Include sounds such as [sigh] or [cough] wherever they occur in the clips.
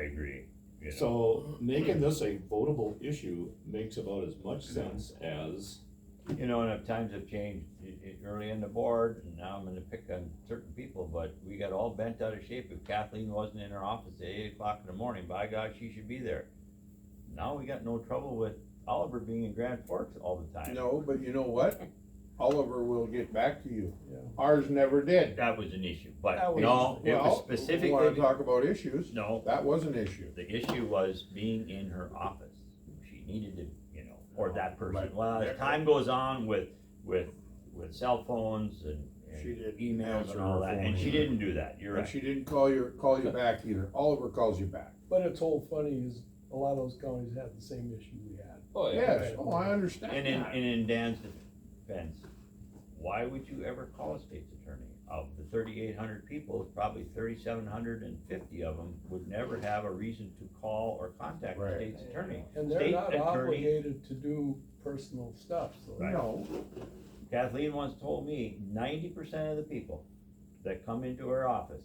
agree. you know. So making this a votable issue makes about as much sense as, You know, and if times have changed, i- i- early in the board, and now I'm gonna pick on certain people, but we got all bent out of shape if Kathleen wasn't in her office at eight o'clock in the morning, by God, she should be there. Now we got no trouble with Oliver being in Grand Forks all the time. No, but you know what? Oliver will get back to you. Yeah. Ours never did. That was an issue, but That was- no, it Well, was we Wanna specifically, talk about issues? no, That was an issue. the issue was being in her office. She needed to, you know, or that person, Right. well, as time goes on with, with, with cell phones and and She didn't emails answer and all her that, phone and she either. didn't do that, you're And right. she didn't call your, call you back either. Oliver calls you back. But it's all funny is a lot of those counties had the same issue we had. oh yeah, Yes, oh, I And understand in, that. and in Dan's defense, why would you ever call a state's attorney? Of the thirty-eight hundred people, probably thirty-seven hundred and fifty of them would never have a reason to call or contact the Right. state's attorney. And State they're not attorney. obligated to do personal stuff, so. Right. No, Kathleen once told me ninety percent of the people that come into her office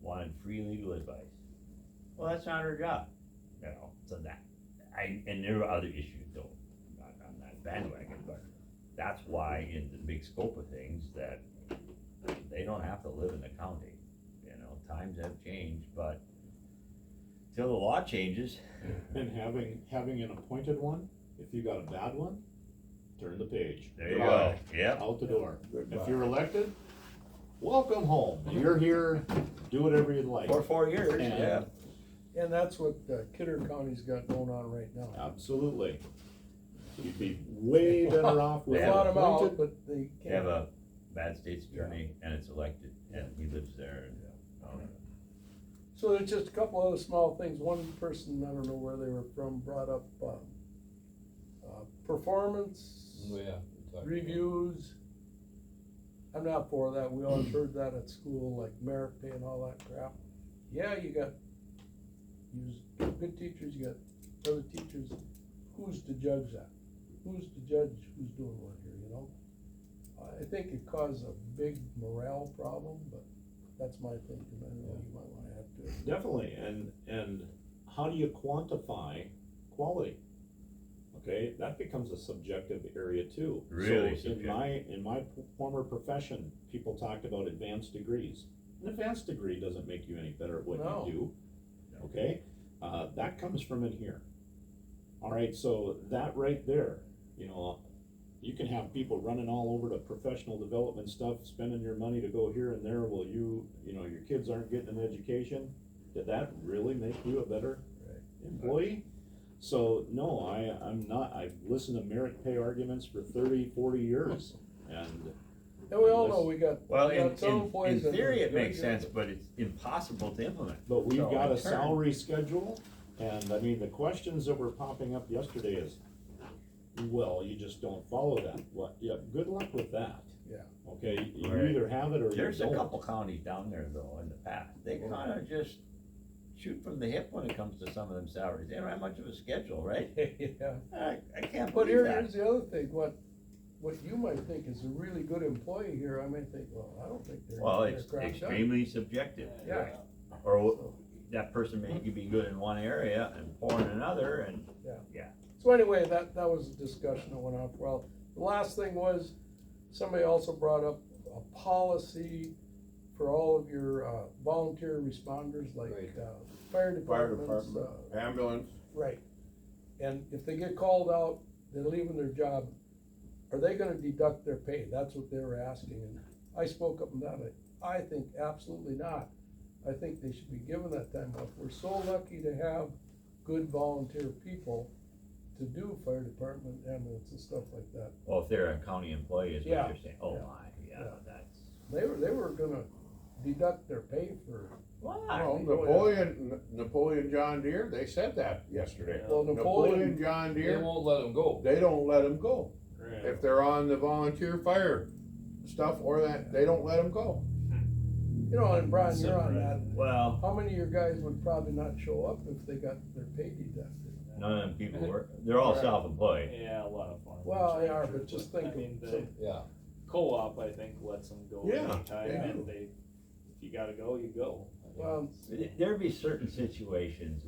wanted free legal advice. Well, that's not her job, you know, so that, I, and there were other issues though, not on that bandwagon, but that's why in the big scope of things that they don't have to live in the county, you know, times have changed, but till the law changes, and having, having an appointed one, if you got a bad one, turn the page. there you go, Goodbye. yep, Out the door. If goodbye. you're elected, welcome home. You're here, do whatever you'd like. or four years, And- yeah. And that's what uh, Kidder County's got going on right now. Absolutely. You'd be way better off We with fought an them out, appointed. but they They have can't. a bad state's attorney and it's elected and he lives there and, um, So there's just a couple other small things. One person, I don't know where they were from, brought up, um, uh, performance reviews. I'm not for that. We always heard that at school, like merit pay and all that crap. Yeah, you got, you got good teachers, you got other teachers. Who's to judge that? Who's to judge who's doing what here, you know? I- I think it caused a big morale problem, but that's my thinking. I know you might wanna have to. Definitely, and, and how do you quantify quality? Okay, that becomes a subjective area too. Really So in subjective. my, in my p- former profession, people talked about advanced degrees. An advanced degree doesn't make you any better at what No. you do, okay? Uh, that comes from in here. All right, so that right there, you know, you can have people running all over to professional development stuff, spending your money to go here and there, well, you, you know, your kids aren't getting an education. Did that really make you a better Right. employee? So, no, I, I'm not, I've listened to merit pay arguments for 30, 40 years, and And we all know we got, Well, we in, got some in, in employees that. theory, are it makes very sense, good. but it's impossible to implement. But we've So, got in a turn- salary schedule, and I mean, the questions that were popping up yesterday is, well, you just don't follow that, what, yeah, good luck with that. Yeah. Okay, you Right. either have it or you There's a don't. couple counties down there though, in the past, Oh. they kinda just shoot from the hip when it comes to some of them salaries, they don't have much of a schedule, right? [laughs] Yeah. I, I can't But here, believe that. here's the other thing, what, what you might think is a really good employee here, I might think, well, I don't think they're. Well, they're it's crap job. extremely subjective, Yeah. or wh- So- that person may be good in one area and poor in another, and So anyway, that, that was a discussion that went off well. The last thing was, somebody also brought up a policy for all of your, uh, volunteer responders, like, Right. uh, fire Fire departments, department, uh, ambulance, Right. And if they get called out, they're leaving their job, are they gonna deduct their pay? That's what they were asking, and I spoke up and down, I, I think absolutely not. I think they should be given that time off. We're so lucky to have good volunteer people to do fire department, ambulance and stuff like that. Well, if they're a county employee, is what Yeah. you're saying, oh Yeah. my, yeah, Yeah. that's. They were, they were gonna deduct their pay for, well, Napoleon, Napoleon John Deere, they said that yesterday. well, Napoleon Napoleon, John They Deere, won't let them go. they don't let them go. If they're on the volunteer fire stuff or that, they don't let them go. you know, and Brian, you're on that. Well, How many of your guys would probably not show up if they got their pay deducted? none of them people work, they're all Right. self-employed. Yeah, a lot of farmers. Well, they I'm are, sure, but just think I mean, of the some, Yeah. co-op, I think, lets them go Yeah, anytime, they and do. they, if you gotta go, you go. I Well, There'd be certain situations